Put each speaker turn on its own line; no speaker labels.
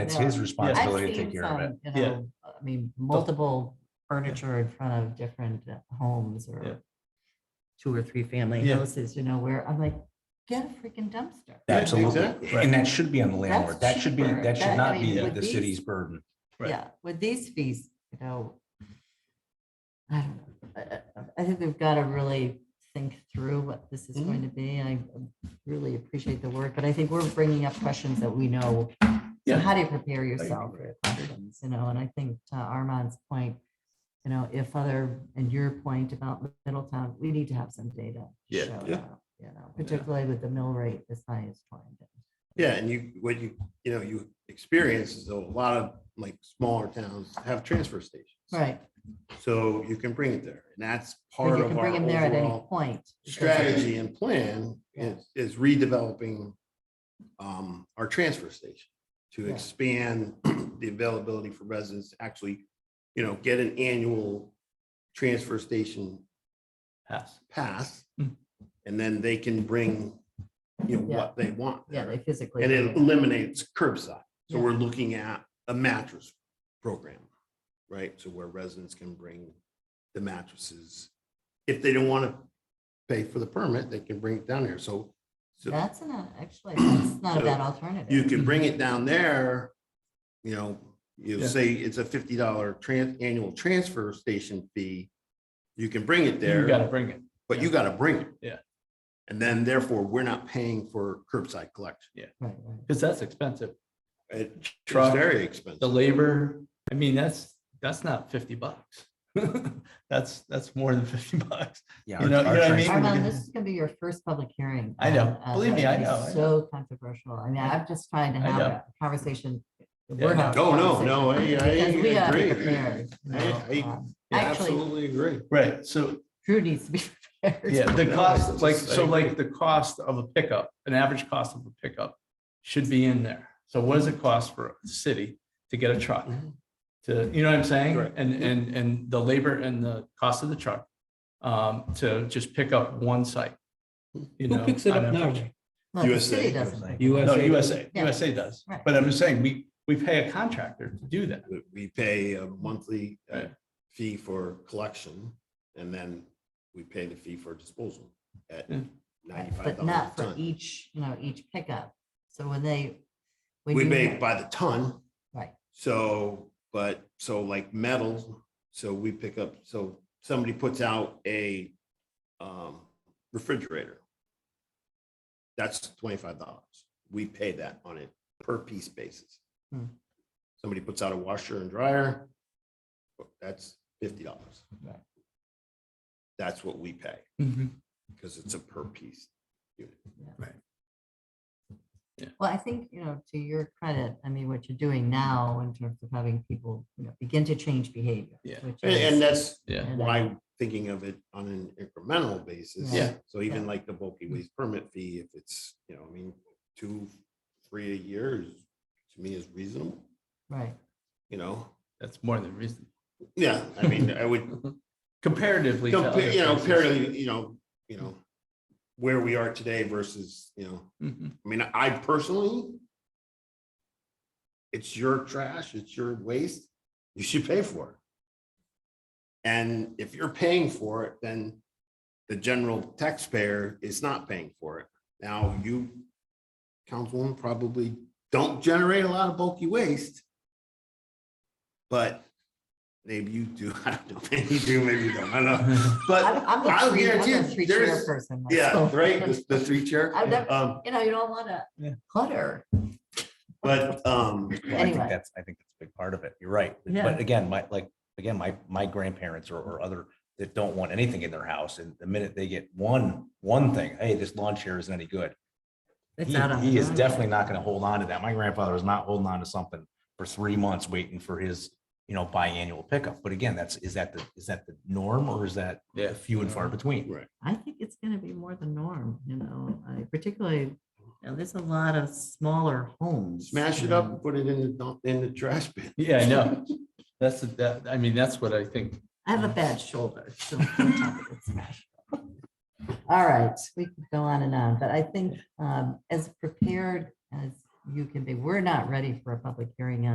It's
Yeah.
his
I've
I've
responsibility to
seen
take care of it.
some, you
Yeah.
know, I mean, multiple furniture in front of different uh, homes
Yeah.
or two or three family
Yeah.
houses, you know, where I'm like, get a freaking dumpster.
Yeah,
Absolutely.
exactly.
And that should be on the landlord.
That's
That should be,
cheaper.
that should
That-
not
I mean,
be
with
the
these-
city's burden.
Right.
Yeah, with these fees, you know. I don't know. I- I- I think we've got to really think through what this is
Mm-hmm.
going to be. I really appreciate the work, but I think we're bringing up questions that we know. So
Yeah.
How do you prepare yourself for questions, you know, and I think to Armand's point, you know, if other, and your point about Middletown, we need to have some data. to
Yeah.
show
Yeah.
that, You know, particularly with the mill rate as high as twenty.
Yeah, and you, what you, you know, you experience is a lot of like smaller towns have transfer stations.
Right.
So you can bring it there and that's
But
part
you
of
can
our
bring them there at any
overall
point. because-
strategy and plan is, is redeveloping um, our transfer station to
Yeah.
expand the availability for residents to actually, you know, get an annual transfer station
Pass.
pass.
Mm.
And then they can bring, you know,
Yeah.
what they want.
Yeah,
there.
they physically.
And
bring
it
it.
eliminates curbside. So
Yeah.
we're looking at a mattress program, right? So where residents can bring the mattresses. If they don't want to pay for the permit, they can bring it down here. So, so
That's not, actually, that's not a
So
bad alternative.
you can bring it down there, you know, you
Mm-hmm. Yeah.
say it's a fifty dollar trans, annual transfer station fee. You can bring it
You gotta
there,
bring it.
but you got to bring it.
Yeah.
And then therefore, we're not paying for curbside collection.
Right, right.
Cause that's expensive.
It's
Truck,
very
The
expensive.
labor, I mean, that's, that's not fifty bucks. That's, that's more than fifty bucks.
Yeah.
You
our-
know- you
our
know what I
trans-
mean? Maybe we
Armand,
can-
this is gonna be your first public hearing.
I know.
on- on
Believe me,
that.
I
It's
know, I know.
So controversial. I mean, I'm just trying to
I
have
know.
a conversation.
Yeah,
We're
no.
having a
Oh, no,
conversation
no, I,
because we
I
gotta be
agree.
prepared, you
I-
know,
I-
um,
yeah,
Actually,
Absolutely agree.
Right, so,
Drew needs to be prepared.
yeah, the
No,
cost,
it's
like,
just-
so like the cost of a pickup, an average cost of a pickup should be in there. So what does it cost for the city to get a truck?
Mhm.
Mm-hmm.
To, you know what I'm saying?
Correct.
And, and, and the labor and the cost of the truck, um, to just pick up one site. you
Who
know,
picks it
on
up
a-
now?
No, the
USA,
city doesn't.
USA.
No,
USA.
USA,
Yeah.
USA does.
Right.
But I'm just saying, we, we pay a contractor to do that.
We- We pay a monthly uh,
Right.
fee for collection and then we pay the fee for disposal at
Yeah.
ninety-five
But
dollars a
not for
ton.
each, you know, each pickup. So when they. when
We
you
pay
have-
by the ton,
Right,
so, but, so like metal, so we pick up, so somebody puts out a um, refrigerator. That's twenty-five dollars. We pay that on a per piece basis.
Hmm.
Somebody puts out a washer and dryer, that's fifty dollars.
Right.
That's what we pay,
Mm-hmm.
because it's a per piece.
well, I think, you know, to your credit, I mean, what you're doing now in terms of having people, you know, begin to change behavior.
Yeah.
which
And,
is-
and that's
Yeah.
and
why I'm thinking of it on an incremental basis.
Yeah. Mm.
So even like the bulky waste permit fee, if it's, you know, I mean, two, three a year is, to me is reasonable,
Right,
you know?
That's more than reason.
Yeah, I mean, I would,
Comparatively. to
compare,
other
you know,
places.
apparently, you know, you know, where we are today versus, you know,
Mhm.
I mean, I personally, it's your trash, it's your waste, you should pay for it. And if you're paying for it, then the general taxpayer is not paying for it. Now, you, councilwoman, probably don't generate a lot of bulky waste. But maybe you do, I don't know, maybe you do, maybe you don't, I don't know, but
I'm, I'm the
I'll
three, I'm the
guarantee
three
you, there's,
chair person.
yeah,
myself.
right, the- the three chair.
I've never-
Um,
You know, you don't want to
Yeah.
clutter.
But
Well,
um,
I think
Anyway.
that's, I think that's a big part of it. You're right.
Yeah.
But again, my, like, again, my, my grandparents or, or other that don't want anything in their house and the minute they get one, one thing, hey, this lawn chair isn't any good.
It's
He,
out on
he
the
is
road.
definitely not gonna hold on to that. My grandfather was not holding on to something for three months waiting for his, you know, biannual pickup. But again, that's, is that the, is that the norm or is that
Yeah.
few and far between?
I think it's going to be more the norm, you know, I particularly, you know, there's a lot of smaller homes.
smash it up and put it in the dump, in the trash bin.
Yeah, I know. That's, the- that, I mean, that's what I think.
I have a bad shoulder, so. don't tell me it's smashed up. All right, we could go on and on, but I think um, as prepared as you can be. We're not ready for a public hearing on